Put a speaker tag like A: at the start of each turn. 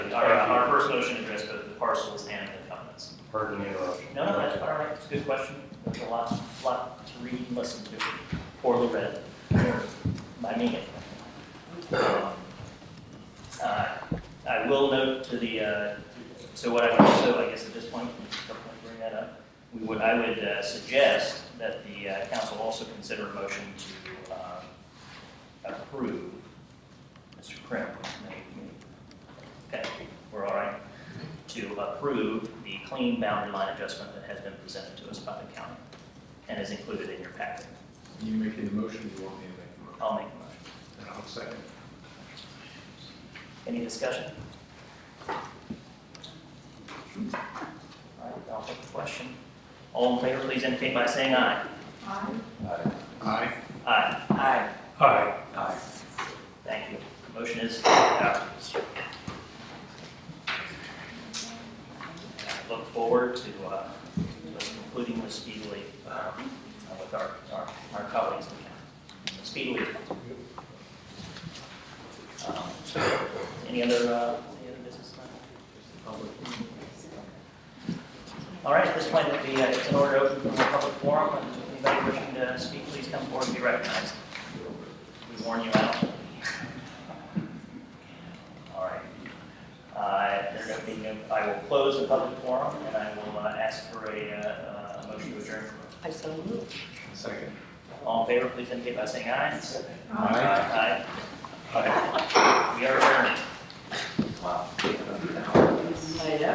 A: first motion addressed both the parcels and the covenants.
B: Pardon the interruption.
A: No, no, that's all right, it's a good question, there's a lot, lot to read and listen to, poorly read, by me. Um, uh, I will note to the, uh, so what I would also, I guess at this point, we should definitely bring that up, we would, I would uh, suggest that the uh, council also consider a motion to um, approve Mr. Krim, may- may- okay, we're all right, to approve the clean boundary line adjustment that has been presented to us by the county and is included in your packet.
C: You making the motion, you want me to make the motion?
A: I'll make a motion.
C: And I'll second.
A: Any discussion? All right, I'll take the question. All in favor, please indicate by saying aye.
D: Aye.
C: Aye.
A: Aye. Aye.
B: Aye.
A: Thank you. Motion is adopted. I Look forward to uh, to us concluding this speedily um, with our, our our colleagues in the county. Speedily. Um, Any other, uh, any other business? All right, at this point, it'd be, uh, it's an order open for the public forum. If Anybody wishing to speak, please come forward and be recognized. We warn you out. All right. Uh, There don't being no- I will close the public forum, and I will uh, ask for a uh, a motion to adjourn.
D: I so moved.
C: Second.
A: All in favor, please indicate by saying aye.
C: Aye.
A: Aye. Aye. We are adjourned. Wow.